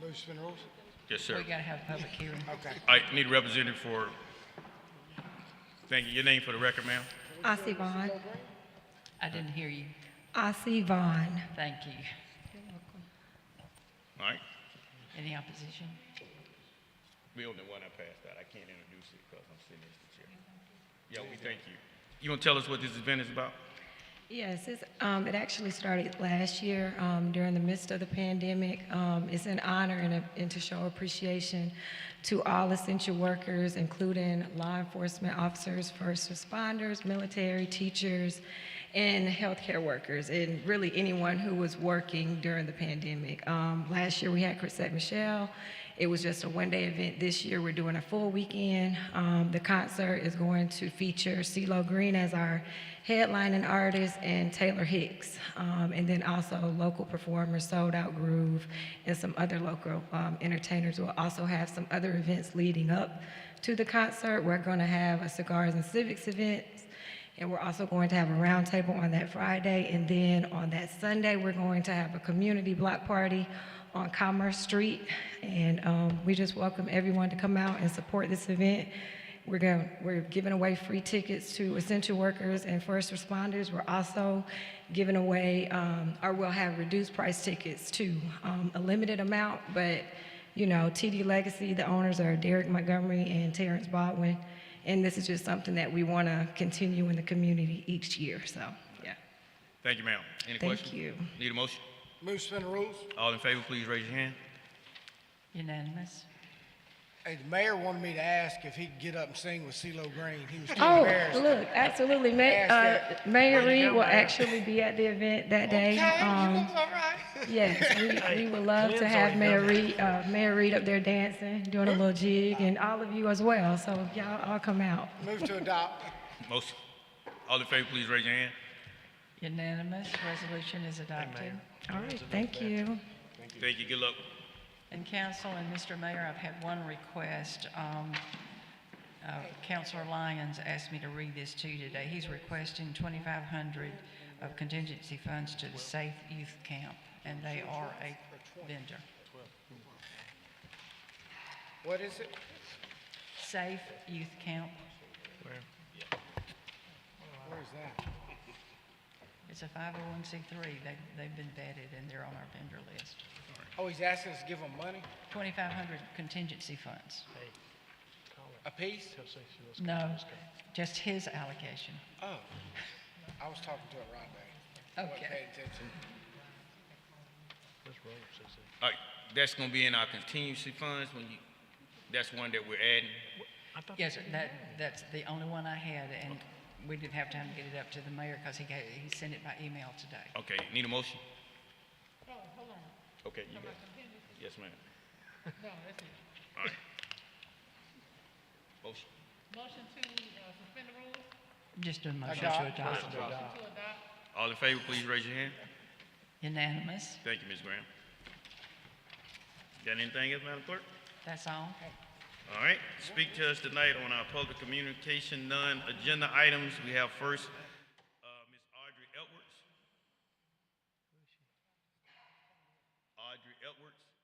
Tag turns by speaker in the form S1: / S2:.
S1: Move to suspend rules?
S2: Yes,
S3: We
S2: sir.
S3: gotta have a public hearing.
S1: Okay.
S2: I need a representative for, thank you. Your name for the record, ma'am?
S4: Ossie Vaughn.
S3: I didn't hear you.
S4: Ossie Vaughn.
S3: Thank you.
S2: All right.
S3: Any opposition?
S2: Bill, the one I passed out, I can't introduce it because I'm sitting as the chair. Yeah, we thank you. You want to tell us what this event is about?
S4: Yes, it's, um, it actually started last year um, during the midst of the pandemic. Um, it's an honor and, a, and to show appreciation to all essential workers, including law enforcement officers, first responders, military, teachers, and healthcare workers, and really anyone who was working during the pandemic. Um, last year we had Chrisette Michelle. It was just a one-day event. This year, we're doing a full weekend. Um, the concert is going to feature CeeLo Green as our headlining artist and Taylor Hicks, um, and then also local performers, Sold Out Groove, and some other local um, entertainers. We'll also have some other events leading up to the concert. We're going to have a cigars and civics event. And we're also going to have a roundtable on that Friday. And then on that Sunday, we're going to have a community block party on Commerce Street. And um, we just welcome everyone to come out and support this event. We're going, we're giving away free tickets to essential workers and first responders. We're also giving away, um, or we'll have reduced price tickets too, um, a limited amount. But, you know, TD Legacy, the owners are Derek Montgomery and Terrence Baldwin. And this is just something that we want to continue in the community each year, so, yeah.
S2: Thank you, ma'am. Any
S4: Thank
S2: questions?
S4: you.
S2: Need a motion?
S1: Move to suspend rules?
S2: All in favor, please raise your hand.
S3: Unanimous?
S1: Hey, the mayor wanted me to ask if he could get up and sing with CeeLo Green. He was too
S4: Oh,
S1: embarrassed.
S4: look, absolutely. Ma-
S1: Ask
S4: uh,
S1: that. Way
S4: Mayor
S1: to go,
S4: Reed will
S1: Mayor.
S4: actually be at the event that day.
S1: Okay, you
S4: Um,
S1: look all right.
S4: Yes, we, we would love to have Mayor Reed, uh, Mayor Reed up there dancing, doing a little jig, and all of you as well, so y'all all come out.
S1: Move to adopt.
S2: Motion. All in favor, please raise your hand.
S3: Unanimous? Resolution is adopted.
S4: All right, thank you.
S2: Thank you. Good luck.
S3: And council and Mr. Mayor, I've had one request. Um, uh, Councilor Lyons asked me to read this to you today. He's requesting 2,500 of contingency funds to the Safe Youth Camp, and they are a vendor.
S1: What is it?
S3: Safe Youth Camp,
S1: Where is that?
S3: it's a 501c3. They- They've been vetted, and they're on our vendor list.
S1: Oh, he's asking us to give him money?
S3: 2,500 contingency funds.
S1: A piece?
S3: No, just his allocation.
S1: Oh. I was talking to her right there. Wasn't
S3: Okay.
S1: paying attention.
S2: All right, that's gonna be in our contingency funds when you, that's one that we're adding.
S3: Yes, sir, that, that's the only one I had, and we didn't have time to get it up to the mayor because he gave, he sent it by email today.
S2: Okay, need a motion? Okay, you got it. Yes, ma'am. No, that's it. All right. Motion.
S5: Motion to uh, suspend the rules,
S3: Just a motion to
S1: Adopt.
S3: adopt.
S5: to adopt,
S2: All in favor, please raise your hand.
S3: Unanimous,
S2: Thank you, Ms. Graham. Got anything else, Madam Clerk?
S3: that's all.
S2: All right, speak to us tonight on our public communication non-agenda items. We have first, uh, Ms. Audrey Edwards. Audrey Edwards.